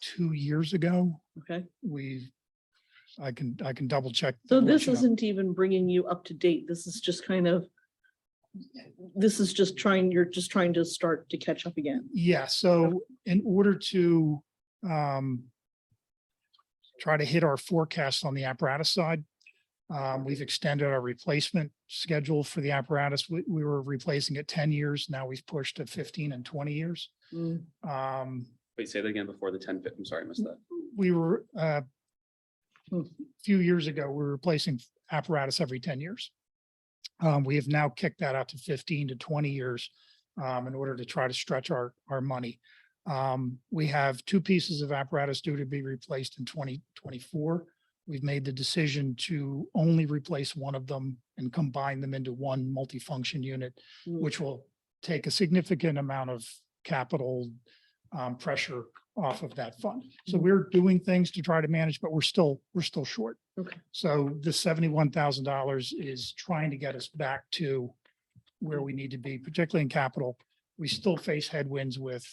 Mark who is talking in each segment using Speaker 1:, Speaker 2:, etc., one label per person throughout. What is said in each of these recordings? Speaker 1: two years ago.
Speaker 2: Okay,
Speaker 1: We, I can, I can double check.
Speaker 2: so
Speaker 1: and let
Speaker 2: this
Speaker 1: you know.
Speaker 2: isn't even bringing you up to date. This is just kind of, this is just trying, you're just trying to start to catch up again.
Speaker 1: Yeah, so in order to um try to hit our forecast on the apparatus side, um, we've extended our replacement schedule for the apparatus. We, we were replacing it ten years. Now we've pushed to fifteen and twenty years.
Speaker 2: Mm,
Speaker 1: Um,
Speaker 3: Wait, say that again before the ten, I'm sorry, I missed that.
Speaker 1: we were uh
Speaker 2: Hmm.
Speaker 1: few years ago, we were replacing apparatus every ten years. Um, we have now kicked that out to fifteen to twenty years um, in order to try to stretch our our money. Um, we have two pieces of apparatus due to be replaced in twenty twenty-four. We've made the decision to only replace one of them and combine them into one multifunction unit
Speaker 2: mm.
Speaker 1: which will take a significant amount of capital um, pressure off of that fund. So
Speaker 2: Mhm.
Speaker 1: we're doing things to try to manage, but we're still, we're still short.
Speaker 2: Okay.
Speaker 1: So the seventy-one thousand dollars is trying to get us back to where we need to be, particularly in capital. We still face headwinds with,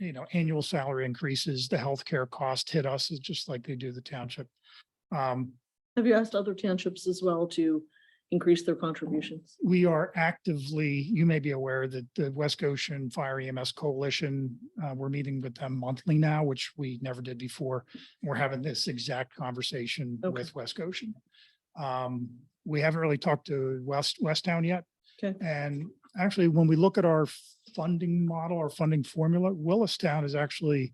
Speaker 1: you know, annual salary increases, the healthcare cost hit us, it's just like they do the township. Um,
Speaker 2: Have you asked other townships as well to increase their contributions?
Speaker 1: we are actively, you may be aware that the West Goshen Fire EMS Coalition, uh, we're meeting with them monthly now, which we never did before. We're having this exact conversation
Speaker 2: Okay.
Speaker 1: with West Goshen. Um, we haven't really talked to West, Westtown yet.
Speaker 2: Okay.
Speaker 1: And actually, when we look at our funding model, our funding formula, Willistown is actually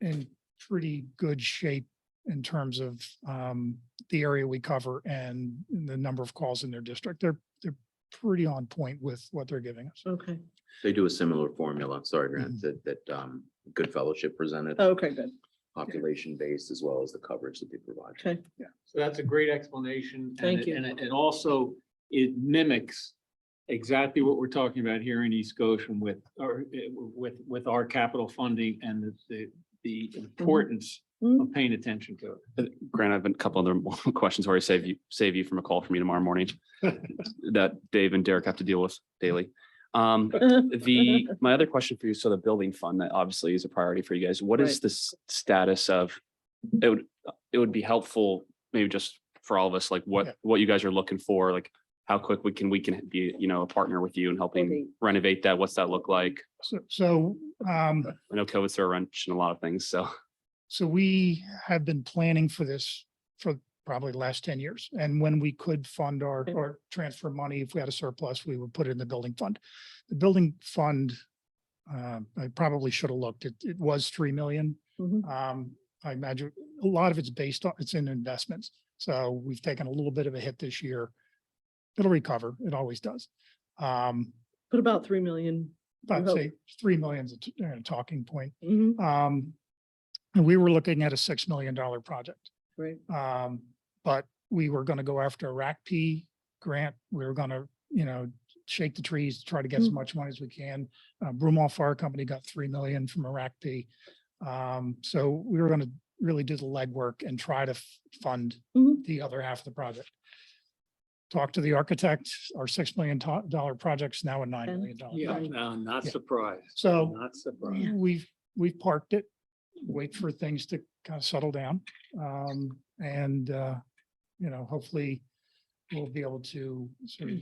Speaker 1: in pretty good shape in terms of, um, the area we cover and the number of calls in their district. They're, they're pretty on point with what they're giving us.
Speaker 2: Okay,
Speaker 4: They do a similar formula, sorry,
Speaker 1: Mhm.
Speaker 4: Grant, that, that um, Good Fellowship presented,
Speaker 2: Oh, okay, good,
Speaker 4: population based as well as the coverage that they provide.
Speaker 2: okay.
Speaker 5: So that's a great explanation. and
Speaker 2: Thank
Speaker 5: it-
Speaker 2: you.
Speaker 5: And it it also, it mimics exactly what we're talking about here in East Goshen with, or uh, with, with our capital funding and the- the, the
Speaker 1: Mm-hmm.
Speaker 5: importance
Speaker 2: Mm,
Speaker 5: of paying attention to it.
Speaker 3: Grant, I've been a couple other more questions where I save you, save you from a call from me tomorrow morning that Dave and Derek have to deal with daily. Um, the, my other question for you, so the building fund, that obviously is a priority for you guys. What is
Speaker 2: Right.
Speaker 3: the s- status of? It would, it would be helpful, maybe just for all of us, like
Speaker 1: Yeah.
Speaker 3: what, what you guys are looking for, like how quick we can, we can be, you know, a partner with you and helping
Speaker 2: Building.
Speaker 3: renovate that. What's that look like?
Speaker 1: So, so, um,
Speaker 3: I know COVID's thrown a wrench in a lot of things, so.
Speaker 1: So we have been planning for this for probably the last ten years. And when we could fund our,
Speaker 2: Okay.
Speaker 1: or transfer money, if we had a surplus, we would put it in the building fund. The building fund, uh, I probably should have looked, it, it was three million.
Speaker 2: Mhm.
Speaker 1: Um, I imagine a lot of it's based on, it's in investments. So we've taken a little bit of a hit this year. It'll recover, it always does. Um,
Speaker 2: Put about three million.
Speaker 1: but I'd
Speaker 2: hope.
Speaker 1: say three million is a t- uh, talking point.
Speaker 2: Mhm,
Speaker 1: Um, and we were looking at a six million dollar project.
Speaker 2: Right,
Speaker 1: Um, but we were gonna go after a RACP grant. We were gonna, you know, shake the trees, try to get as
Speaker 2: Mm.
Speaker 1: much money as we can. Uh, Brumall Fire Company got three million from a RACP. Um, so we were gonna really do the legwork and try to f- fund
Speaker 2: Mhm.
Speaker 1: the other half of the project. Talk to the architect, our six million to- dollar project's now a nine
Speaker 2: Ten.
Speaker 1: million dollar.
Speaker 5: Yeah,
Speaker 1: project.
Speaker 5: no, not
Speaker 1: Yeah.
Speaker 5: surprised.
Speaker 1: So-
Speaker 5: Not surprised.
Speaker 2: Yeah.
Speaker 1: We've, we've parked it, wait for things to kind of settle down. Um, and, uh, you know, hopefully we'll be able to sort of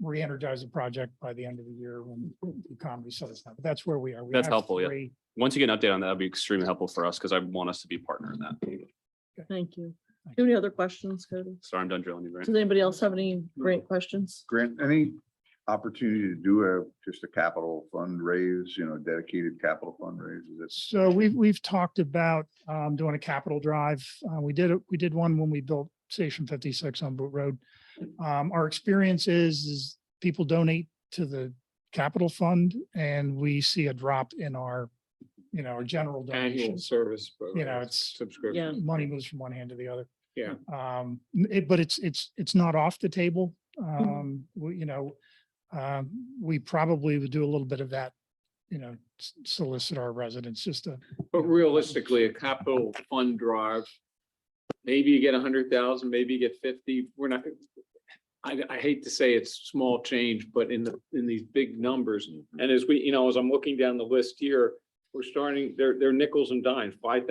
Speaker 1: re-energize the project by the end of the year when the economy settles down. But that's where we are. We
Speaker 3: That's
Speaker 1: have
Speaker 3: helpful, yeah.
Speaker 1: three-
Speaker 3: Once you get an update on that, that'd be extremely helpful for us because I want us to be a partner in that.
Speaker 2: thank you. Do
Speaker 1: Thank
Speaker 2: you have any other questions, Cody?
Speaker 3: Sorry, I'm done drilling you, Grant.
Speaker 2: Does anybody else have any great questions?
Speaker 6: Grant, any opportunity to do a, just a capital fundraise, you know, dedicated capital fundraise? Is this
Speaker 1: So we've, we've talked about, um, doing a capital drive. Uh, we did, it- we did one when we built Station fifty-six on Boot Road. Um, our experience is, is people donate to the capital fund and we see a drop in our, you know, our general
Speaker 5: Annual
Speaker 1: donations.
Speaker 5: service.
Speaker 1: You know,
Speaker 5: program,
Speaker 1: it's-
Speaker 2: Yeah.
Speaker 5: Subscription.
Speaker 1: Money moves from one hand to the other.
Speaker 5: Yeah.
Speaker 1: Um, it, but it's, it's, it's not off the table. Um, we, you know, um, we probably would do a little bit of that, you know, s- solicit our residents just to
Speaker 5: But realistically, a capital fund drive, maybe you get a hundred thousand, maybe you get fifty, we're not. I, I hate to say it's small change, but in the, in these big numbers, and as we, you know, as I'm looking down the list here, we're starting, they're, they're nickels and dimes, five